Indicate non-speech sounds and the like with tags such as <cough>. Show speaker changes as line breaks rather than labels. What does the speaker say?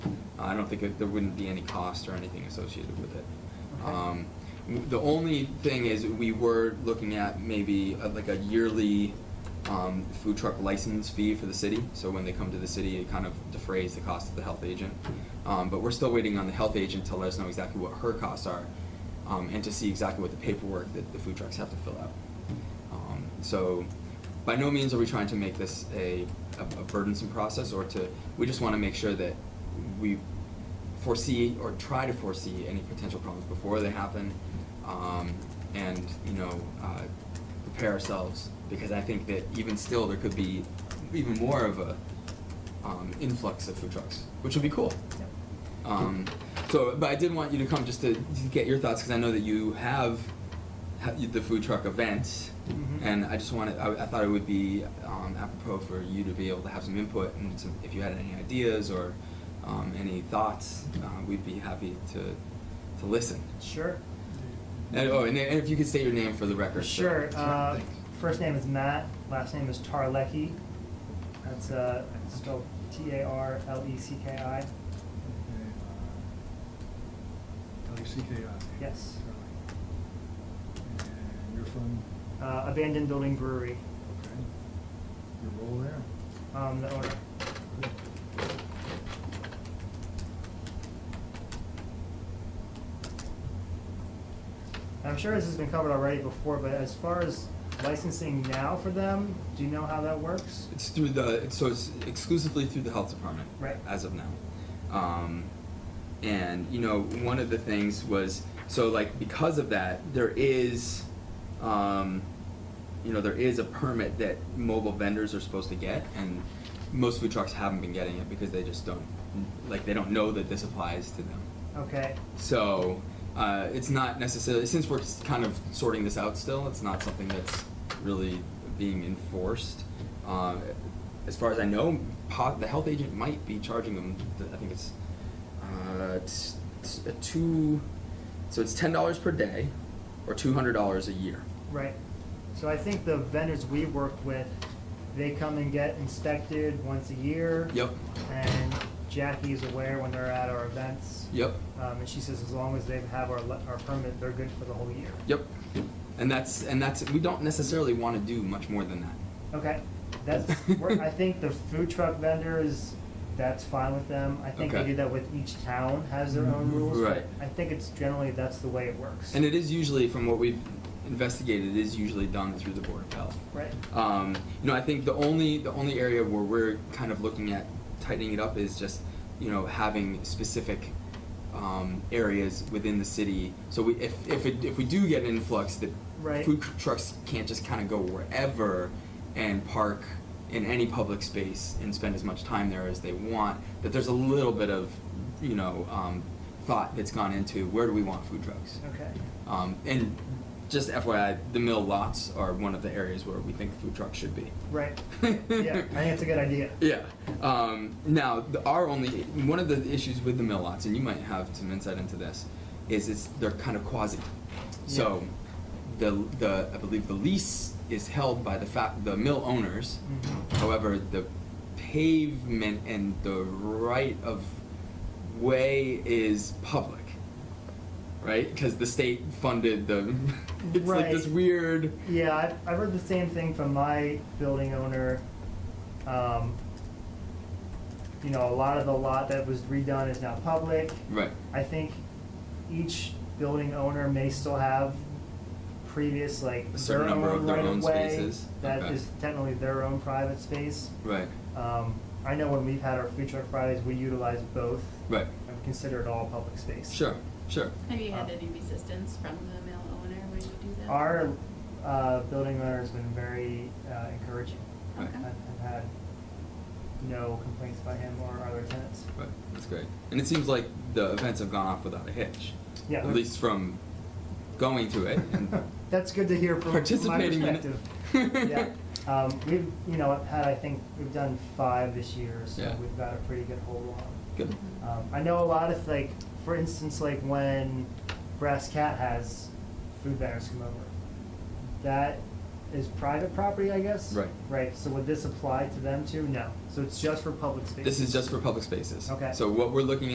I don't think it- there wouldn't be any cost or anything associated with it.
Okay.
Um, w- The only thing is, we were looking at maybe uh, like a yearly um, food truck license fee for the city. So when they come to the city, it kind of defrays the cost of the health agent. Um, But we're still waiting on the health agent to let us know exactly what her costs are um, and to see exactly what the paperwork that the food trucks have to fill out. Um, So by no means are we trying to make this a, a a burdensome process or to, we just want to make sure that we foresee or try to foresee any potential problems before they happen, um, and, you know, uh, prepare ourselves, because I think that even still, there could be even more of a, um, influx of food trucks, which would be cool. Um, so, but I did want you to come just to, to get your thoughts, because I know that you have, ha- you- the food truck event,
Mhm.
and I just wanted, I, I thought it would be um, apropos for you to be able to have some input and some, if you had any ideas or um, any thoughts, uh, we'd be happy to, to listen.
Sure.
And, oh, and, and if you could state your name for the record. so-
Sure. Uh,
Thanks.
first name is Matt. Last name is Tarlecki. That's uh, spelled T A R L E C K I.
L-E-C-K-I.
Yes.
And you're from,
Uh, abandoned building brewery.
okay, your role there?
Um, the owner.
Good.
I'm sure this has been covered already before, but as far as licensing now for them, do you know how that works?
It's through the, so it's exclusively through the health department.
Right.
As of now. Um, and, you know, one of the things was, so like, because of that, there is, um, you know, there is a permit that mobile vendors are supposed to get, and most food trucks haven't been getting it because they just don't, like, they don't know that this applies to them.
Okay.
So uh, it's not necessarily since we're s- kind of sorting this out still. It's not something that's really being enforced. Uh, as far as I know, po- the health agent might be charging them. th- I think it's uh, it's, it's a two, so it's ten dollars per day, or two hundred dollars a year.
Right. So I think the vendors we work with, they come and get inspected once a year.
Yep.
And Jackie is aware when they're at our events.
Yep.
Um, and she says as long as they have our, le- our permit, they're good for the whole year.
Yep. And that's and that's we don't necessarily want to do much more than that.
Okay, that's, we're- I think the food truck vendors, that's fine with them. I think
Okay.
they
Mm-hmm.
do that with each town has their own rules. but
Right.
I think it's generally, that's the way it works.
And it is usually, from what we've investigated, it is usually done through the Board of Health.
Right.
Um, you know, I think the only, the only area where we're kind of looking at tightening it up is just, you know, having specific, um, areas within the city. So we, if, if it, if we do get an influx, that
Right.
food trucks can't just kind of go wherever and park in any public space and spend as much time there as they want, that there's a little bit of, you know, um, thought that's gone into where do we want food trucks?
Okay,
Um, and just FYI, the mill lots are one of the areas where we think food trucks should be. <laughs>
right. Yeah, I think it's a good idea.
Yeah. Um, now, the, our only one of the issues with the mill lots, and you might have some insight into this, is it's they're kind of quasi. So, the the I believe the lease is held by the fa- the mill owners.
Mhm.
However, the pavement and the right of way is public, right? Because the state funded the. <laughs> It's like this
Right.
weird.
Yeah, I've, I've heard the same thing from my building owner. Um, you know, a lot of the lot that was redone is now public.
Right.
I think each building owner may still have previous, like,
A certain
their
number of
own
their
right
own
of way.
spaces.
That
Okay.
is technically their own private space.
Right.
Um, I know when we've had our food truck Fridays, we utilize both.
Right.
And consider it all public space.
Sure. Sure.
Have you had any resistance from the mill owner when you do that?
Our, uh, building owner has been very, uh, encouraging.
Okay.
I've, I've had no complaints by him or our other tenants.
Right, that's great. And it seems like the events have gone off without a hitch.
Yeah.
At least from going to it
<laughs>
and
That's good to hear from from my
participating in it.
perspective.
<laughs>
Yeah, um, we've, you know, had, I think, we've done five this year, so
Yeah.
we've got a pretty good hold on.
Good.
Um, I know a lot of, like, for instance, like when Brass Cat has food vendors come over, that is private property, I guess?
Right.
Right, so would this apply to them too? No, so it's just for public spaces?
This is just for public spaces.
Okay.
So what we're looking